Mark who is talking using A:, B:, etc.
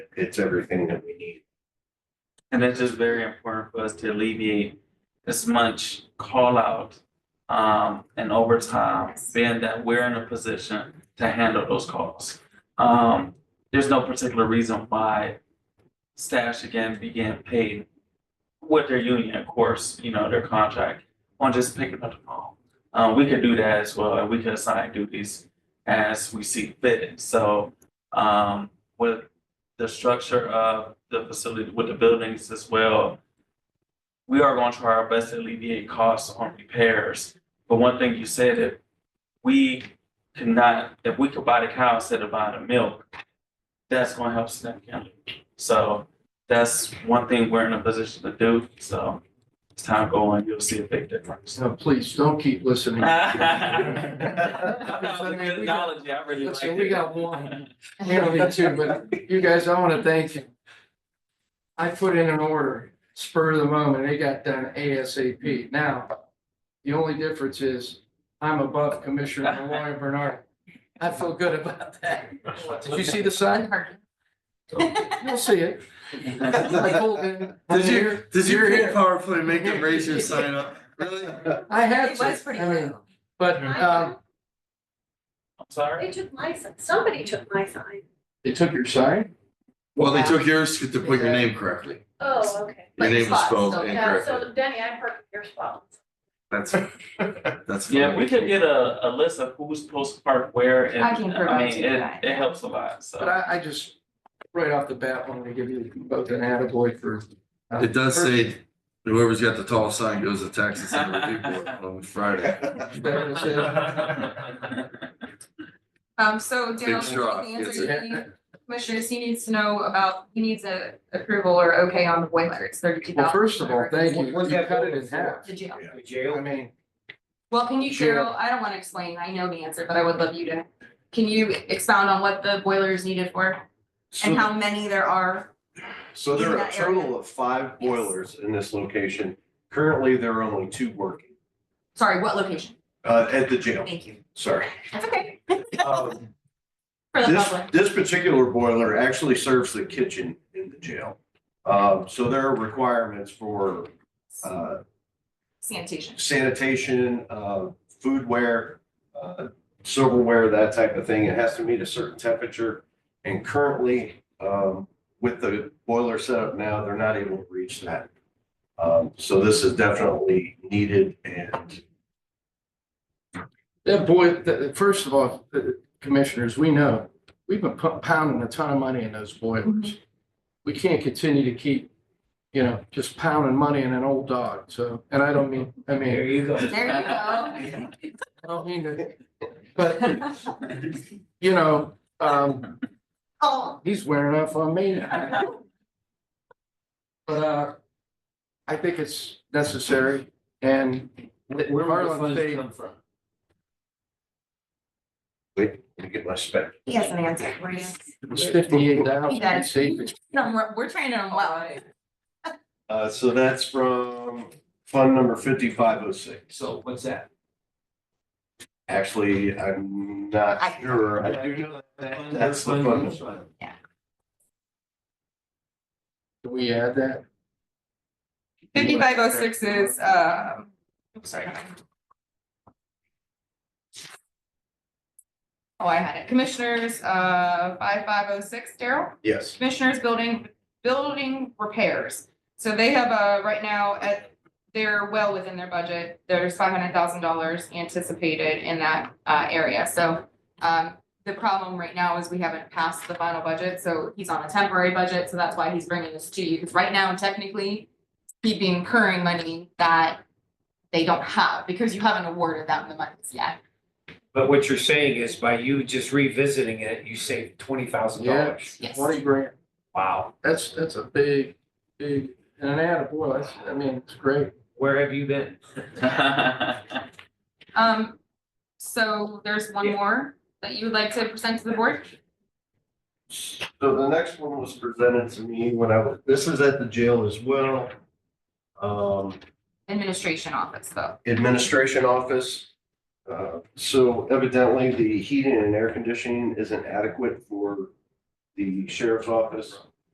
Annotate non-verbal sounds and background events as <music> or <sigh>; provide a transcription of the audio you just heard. A: it's everything that we need.
B: And it's just very important for us to alleviate as much call out um and overtime, being that we're in a position to handle those calls. Um, there's no particular reason why staff should again be getting paid with their union, of course, you know, their contract on just picking up the phone. Uh, we could do that as well, and we could assign duties as we see fit. So um with the structure of the facility with the buildings as well. We are going to try our best to alleviate costs on repairs, but one thing you said, if we cannot, if we could buy the cow instead of buying the milk, that's gonna help significantly. So that's one thing we're in a position to do, so as time go on, you'll see a big difference.
C: Now, please, don't keep
D: <laughs>
C: listening.
B: That was a good analogy, I really liked
C: Listen,
B: it.
C: we got one. We don't need to, but you guys, I want to thank you. I put in an order spur of the moment. It got done ASAP. Now, the only difference is I'm above Commissioner Malloy Bernard. I feel good about that. Did you see the sign? You'll see it. I pulled in.
E: Did you, did you
C: You're
E: hear
C: here.
E: powerfully make them raise your sign up? Really?
C: <laughs> I had
D: It
C: to.
D: was pretty
C: I mean,
D: low.
C: But um,
B: I'm sorry?
F: They took my sign, somebody took my sign.
C: they took your sign?
E: Well, they took yours to put your name correctly.
F: Oh, okay.
E: Your
D: But
E: name was
D: spots,
E: spelled
D: so-
F: Yeah,
E: incorrectly.
F: so Danny, I parked your spot.
E: That's,
B: <laughs>
E: that's.
B: Yeah,
E: fine.
B: we could get a, a list of who's supposed to park where and,
D: I can
B: I
D: provide
B: mean,
D: you
B: it,
D: that.
B: it helps a lot,
C: But
B: so.
C: I, I just, right off the bat, wanted to give you both an attaboy for. uh,
E: It does say whoever's got the tallest sign goes to Texas and people
B: <laughs>
E: on Friday.
C: better to say uh, that.
B: <laughs>
D: Um, so Dale, just
E: straw,
D: the answer,
C: sir.
E: yes,
D: he- Commissioner, he needs to know about, he needs a approval or okay on the boiler, it's thirty-two thousand.
C: Well, first of all, thank you.
G: What's
C: You
G: that
C: cut it in
G: for?
C: half.
D: The jail.
G: The
C: I
G: jail,
C: mean,
D: Well, can you,
C: Sure.
D: Cheryl, I don't wanna explain, I know the answer, but I would love you to, can you expound on what the boiler is needed for? And
A: So,
D: how many there are?
A: so there are a
D: in that area.
A: total of five
D: Yes.
A: boilers in this location. Currently, there are only two working,
D: Sorry, what location?
A: uh, at the jail,
D: Thank you.
A: sorry.
D: That's okay,
E: Oh.
A: Um,
D: for the
A: This,
D: public.
A: this particular boiler actually serves the kitchen in the jail. Um, so there are requirements for, uh,
D: Sanitation.
A: sanitation, uh, foodware, uh, silverware, that type of thing. It has to meet a certain temperature. And currently, um, with the boiler set up now, they're not able to reach that. Um, so this is definitely needed and
C: that boy, th- th- first of all, th- th- commissioners, we know, we've been pu- pounding a ton of money in those boilers. We can't continue to keep, you know, just pounding money in an old dog, so, and I don't mean, I
G: there
C: mean,
G: you go.
D: There you go.
C: I don't mean to, but, you know, um,
D: Oh.
C: he's wearing off on me. But uh, I think it's necessary and
G: Where would the
C: Marlon
G: funds
C: Fade-
G: come from?
A: wait, let me get my spec.
D: He has an answer, we're just,
C: it's fifty-eight thousand,
D: Yeah.
C: I'd say,
D: no, we're, we're training him well.
A: Uh, so that's from fund number fifty-five oh six.
G: So what's that?
A: Actually, I'm not
D: I-
A: sure. I do know that that's the fund.
C: can we add that?
D: Fifty-five oh six is, uh, I'm sorry. Oh, I had it. Commissioners, uh, five five oh six, Daryl?
A: Yes.
D: Commissioners Building, Building Repairs. So they have, uh, right now at, they're well within their budget. There's five hundred thousand dollars anticipated in that, uh, area. So, um, the problem right now is we haven't passed the final budget, so he's on a temporary budget, so that's why he's bringing this to you. Because right now, technically, he'd be incurring money that they don't have because you haven't awarded them the monies yet.
G: But what you're saying is by you just revisiting it, you saved twenty thousand
C: Yeah,
G: dollars.
D: Yes.
C: twenty grand.
G: Wow,
C: That's, that's a big, big, and an attaboy, that's, I mean, it's great.
G: where have you been?
B: <laughs>
D: Um, so there's one
G: Yeah.
D: more that you would like to present to the board?
A: So the next one was presented to me when I was, this is at the jail as well. Um,
D: Administration office though.
A: administration office. Uh, so evidently the heating and air conditioning isn't adequate for the sheriff's office.